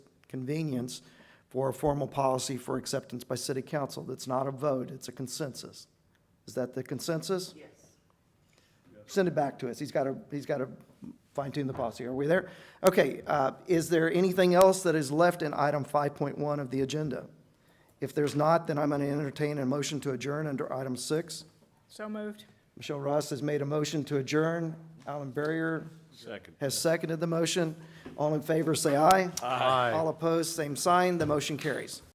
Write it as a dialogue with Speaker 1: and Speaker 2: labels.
Speaker 1: convenience for a formal policy for acceptance by city council. That's not a vote, it's a consensus. Is that the consensus? Yes. Send it back to us. He's got to, he's got to fine tune the policy. Are we there? Okay, uh, is there anything else that is left in item 5.1 of the agenda? If there's not, then I'm going to entertain a motion to adjourn under item six.
Speaker 2: So moved.
Speaker 1: Michelle Ross has made a motion to adjourn. Alan Barrier
Speaker 3: Second.
Speaker 1: has seconded the motion. All in favor, say aye.
Speaker 3: Aye.
Speaker 1: All opposed, same sign. The motion carries.